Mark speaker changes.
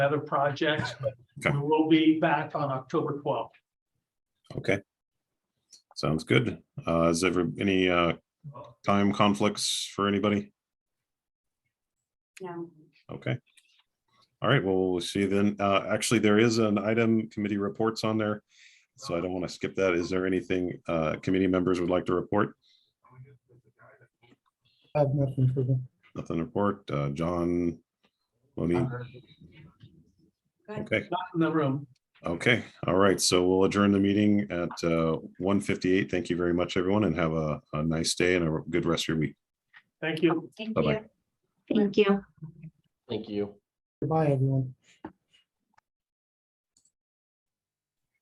Speaker 1: other projects, but
Speaker 2: Okay.
Speaker 1: we will be back on October twelfth.
Speaker 2: Okay. Sounds good. Uh, is ever any, uh, time conflicts for anybody?
Speaker 3: No.
Speaker 2: Okay. All right, well, we'll see then. Uh, actually, there is an item committee reports on there. So I don't want to skip that. Is there anything, uh, committee members would like to report?
Speaker 4: I have nothing for them.
Speaker 2: Nothing to report. Uh, John? Monique?
Speaker 1: Uh,
Speaker 2: Okay,
Speaker 1: Not in the room.
Speaker 2: okay. All right, so we'll adjourn the meeting at, uh, one fifty-eight. Thank you very much, everyone, and have a, a nice day and a good rest of your week.
Speaker 1: Thank you.
Speaker 3: Thank
Speaker 2: Bye-bye.
Speaker 3: you. Thank you.
Speaker 5: Thank you.
Speaker 4: Goodbye, everyone.